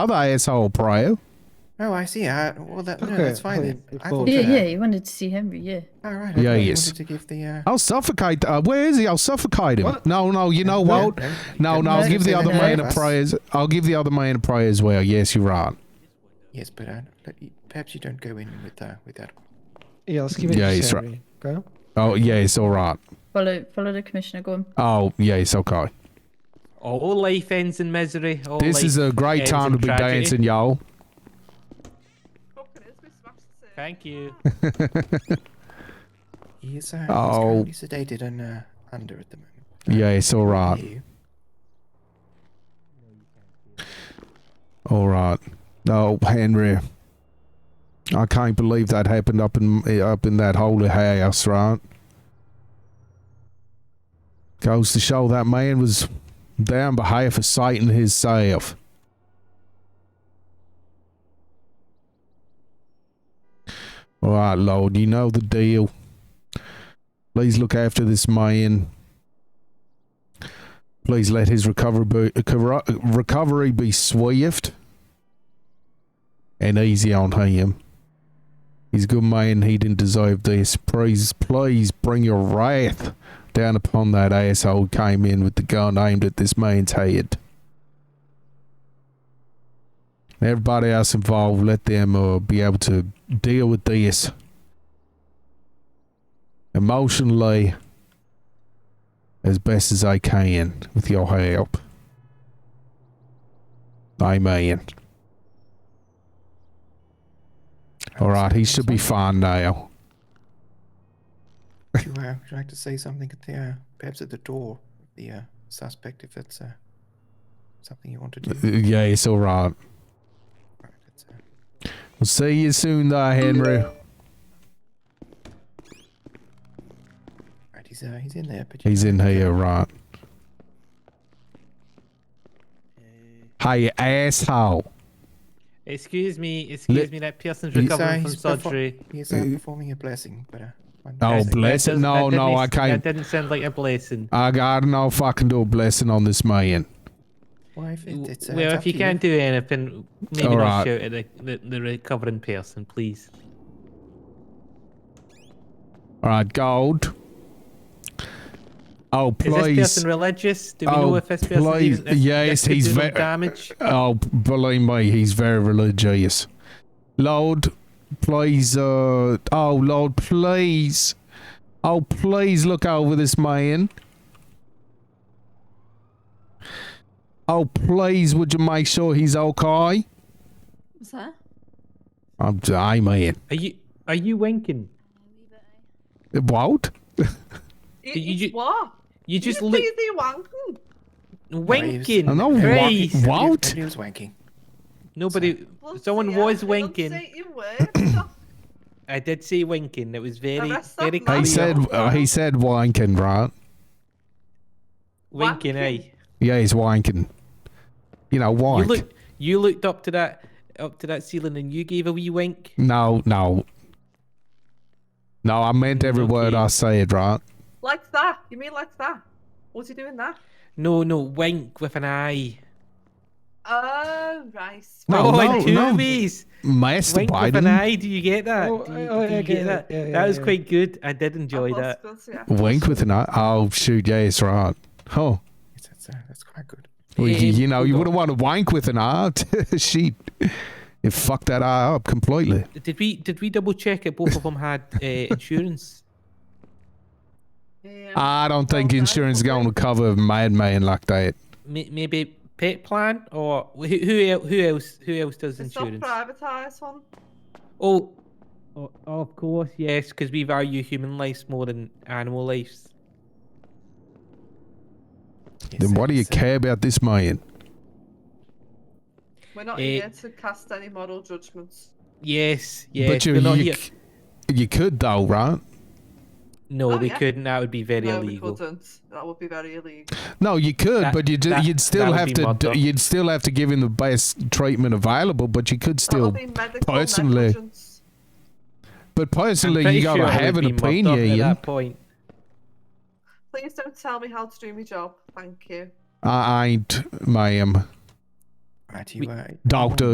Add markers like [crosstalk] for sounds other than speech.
other asshole prior. Oh, I see. I, well, that, no, Okay, that's fine please, then. it's I full. thought, Okay. uh, Yeah, yeah, you wanted to see Henry, yeah. All right. Yeah, I yes. wanted to give the. Uh, I'll suffocate. Uh, where is he? I'll suffocate him. No, no. You know No, what? no, No, don't no. I'll no, give the no, other no. man a prayer. as- I'll give the other man a prayer as well. Yes, you're right. yes, but uh, let you- perhaps you don't go in with uh, with that. Yeah, let's give it Yeah, to he's right. Henry. Okay. Oh, yes, all right. Follow follow the commissioner, go on. Oh, yes, okay. Oh, All life ends in misery. All This life is a great ends time in to be tragedy. dancing, y'all. [laughs] Thank you. He is. Uh, Oh. He's currently sedated and uh, under at the moment. Yes, all right. You. All right. No, Henry. I can't believe that happened up in eh, up in that holy house, right? Goes to show that man was there on behalf of Satan himself. All right, Lord, you know the deal. Please look after this man. Please let his recovery be, recov- recovery be swift and easy on him. He's a good man. He didn't deserve this. Please, please bring your wrath down upon that asshole who came in with the gun aimed at this man's head. And everybody else involved, let them uh, be able to deal with this emotionally as best as I can with your help. Amen. All right, he should be fine now. Would you, uh, would you like to say something at the uh, perhaps at the door of the uh, suspect if that's uh, something you want to do? Uh, Yeah, it's all right. Right, that's, uh, We'll see you soon, there, Henry. right, he's uh, he's in there, but you He's in here, right? Hey, asshole. Excuse me. Excuse Le- me. That person's He's, uh, recovering he's from perfo- surgery. he's uh, performing a blessing, but uh, one Oh, blessing. That- that blessing? doesn't- No, that no, didn't- I can't. That didn't sound like a blessing. I got no fucking do a blessing on this man. Well, if it, it's, uh, well, it's if up you to can't do anything, maybe All not right. shout at the, the, the recovering person, please. All right, gold. Oh, Is this please. person religious? Do we Oh, know if this person please. is, if Yes, this could he's do no ve- damage? Oh, believe me, he's very religious. Lord, please, uh, oh, Lord, please. Oh, please look over this man. Oh, please, would you make sure he's okay? What's that? I'm, amen. Are you are you winking? What? It, You- it's you- what? You just look. look Please, they wanking. winking. I'm not Christ. wanking. Everybody- What? everybody was wanking. Nobody. Bloody Someone hell, was they don't winking. say [coughs] it works. Oh, I did say winking. It was very that's not very nice. clear. He said, uh, he said wanking, right? winking. Aye. Yeah, he's wanking. You know, You wank. look. You looked up to that up to that ceiling and you gave a wee wink. no, no. No, I meant every word Okay. I said, right? like that? You mean like that? Was he doing that? No, no, wink with an eye. Oh, right. No, oh, no, in two no. ways. Wink with an Masturbating. eye. Do you get that? Oh, do you, oh, do yeah, you I get get that? it. Yeah, that yeah, was yeah. quite good. I did enjoy I was that. gonna say, I Wink thought with an eye. Oh shoot, yeah, it's right. Huh. Yes, that's, uh, that's quite good. Well, you, Um, you know, you hold wouldn't want to wank with an eye. [laughs] Shit. It fucked that eye up completely. Did we did we double check if both of them had [laughs] uh, insurance? Yeah. I don't think Well, no, insurance is going to cover a madman like that. May- Maybe pet plan or who who el- who else who else does it's not insurance? privatised one. Oh, oh, of course, yes, because we value human lives more than animal lives. Yes, Then why do you it's, uh, care about this man? We're not Eh. here to cast any moral judgments. Yes, yes. but you we're not you, here- c- you could though, right? No, Oh, we yeah. couldn't. That would be very no, we illegal. couldn't. That would be very illegal. No, you could, That- but you that- you'd that still would have be to my d- thought. you'd still have to give him the best treatment available. But you could still, that would be medical personally- negligence. but I'm personally, pretty you gotta sure I would have an be mucked up at opinion. that point. Please don't tell me how to do my job. Thank you. um, I ain't, ma'am. Right, We- you uh, Doctor,